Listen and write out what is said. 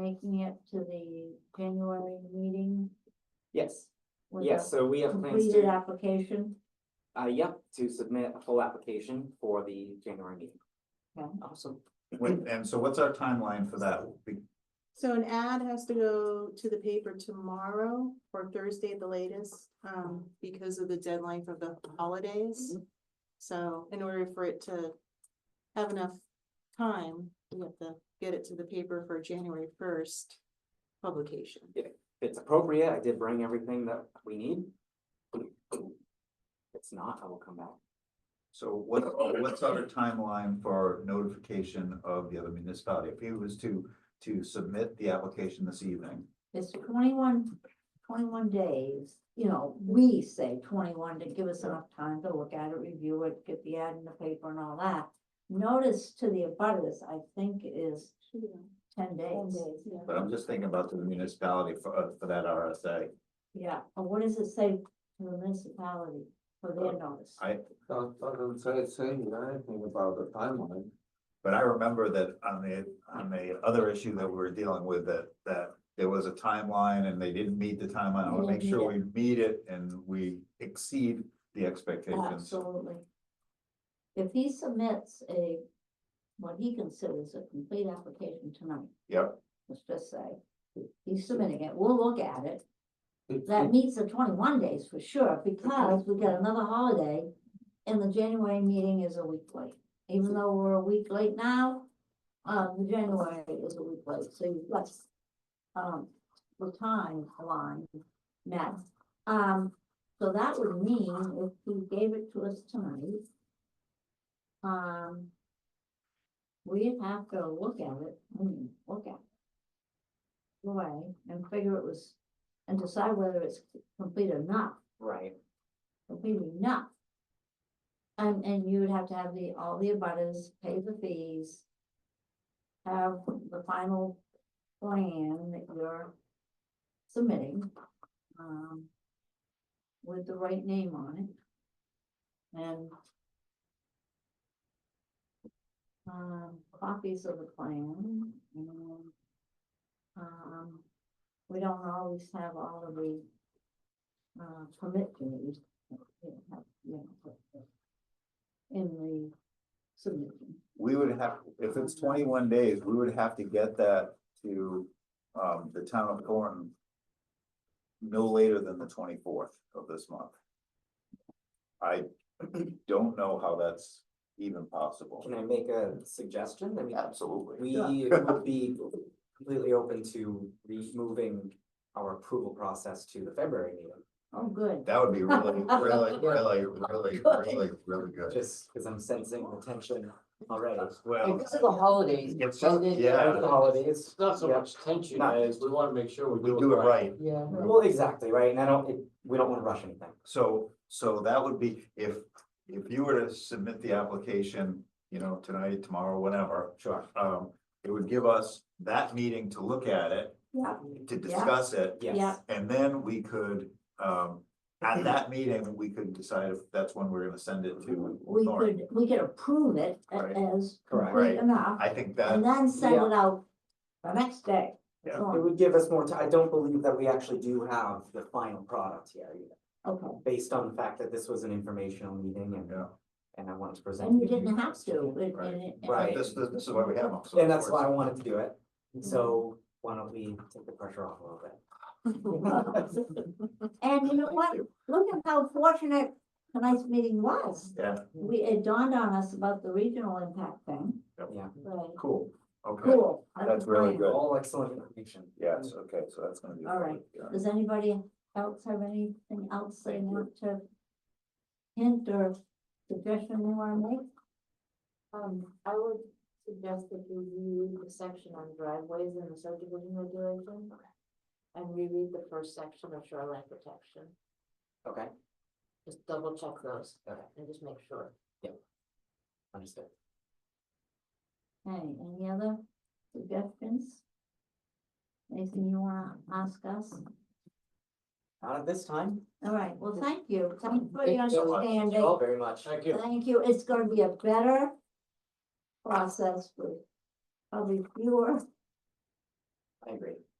making it to the January meeting? Yes, with yes, a so we have plans Completed to, application? uh, yep, to submit a full application for the January meeting. Okay. Awesome. Wait, and so what's our timeline for that? We- So an ad has to go to the paper tomorrow or Thursday at the latest, um, because of the deadline for the holidays. Mm-hmm. So in order for it to have enough time, we have to get it to the paper for January first publication. If it's appropriate, I did bring everything that we need. If it's not, I will come back. So what, what's our timeline for notification of the other municipality? If he was to, to submit the application this evening, It's 21 21 days, you know, we say twenty-one to give us enough time to look at it, review it, get the ad in the paper and all that. Notice to the abutters, I think is ten days. but I'm just thinking about the municipality for, uh, for that RSA. Yeah, and what does it say to the municipality for their notice? I- Don't, don't say, saying anything about the timeline. But I remember that on the, on the other issue that we were dealing with, that, that there was a timeline and they didn't meet the timeline. I want to make sure we meet it and we exceed the expectations. Absolutely. If he submits a, what he considers a complete application tonight. Yep. Let's just say, he's submitting it, we'll look at it, It- that it- meets the twenty-one days for sure, because we got another holiday. And the January meeting is a week late, even though we're a week late now, uh, the January is a week late, so you got Um, the time line met, um, so that would mean if he gave it to us tonight. Um. We'd have to look at it, I mean, look at. it Away and figure it was and decide whether it's complete or not, Right, complete enough. And, and you would have to have the, all the abutters pay the fees. Have the final plan that you're submitting, um. With the right name on it. And. Um, copies of the plan and. Um, we don't always have all of the. Uh, permit committees. that we have, you know, put In the submission. We would have, if it's twenty-one days, we would have to get that to, um, the town of Thornton. No later than the twenty-fourth of this month. I don't know how that's even possible. can I make a suggestion? I mean, Absolutely. we would be completely open to removing our approval process to the February meeting. Oh, good. That would be really, really, really, really, really, really good. Just because I'm sensing the tension already. Well, Because of the holidays. It's and then- yeah. After the holidays. It's not so Yeah. much tension Not- as we wanna make sure we we do it right. Yeah. Well, exactly, right? And I don't, it- we don't want to rush anything. So, so that would be, if, if you were to submit the application, you know, tonight, tomorrow, whenever, Sure. um, it would give us that meeting to look at it, Yeah, to discuss it, Yes, Yeah. and then we could, um, at that meeting, we could decide if that's when we're gonna send it to. we Thorn. could, we could approve it a- Right. as Correct. complete Right. enough, I think and that, then send Yeah. it out the next day. Yeah. So, it would give us more time. I don't believe that we actually do have the final product here, either, Okay, based on the fact that this was an informational meeting and, yeah, and I wanted to present. and you to didn't have to, it- Right. and it- and- Right. this, this this is why we have them. so And that's it's- why I wanted to do it. Mm-hmm. So why don't we take the pressure off a little bit? And you know what, look at how fortunate tonight's meeting was. Yeah, We, it dawned on us about the regional impact thing. Yep. Yeah. Right. cool, okay, Cool. that That's was really mine. Good. All excellent information. yes, okay, so that's gonna be. All right. yeah. Does anybody else have anything else they want to hint or suggestion they wanna make? Um, I would suggest that you reread the section on driveways in the subdivision regulation. And reread the first section of shoreline protection, Okay, just double check those Okay. and just make sure. understood. Hey, any other suggestions? Anything you wanna ask us? Not at this time. All right, well, thank you. Thank you for your Thank you so much. Thank understanding. you all very much. Thank you. Thank you, it's gonna be a better process with probably fewer I agree.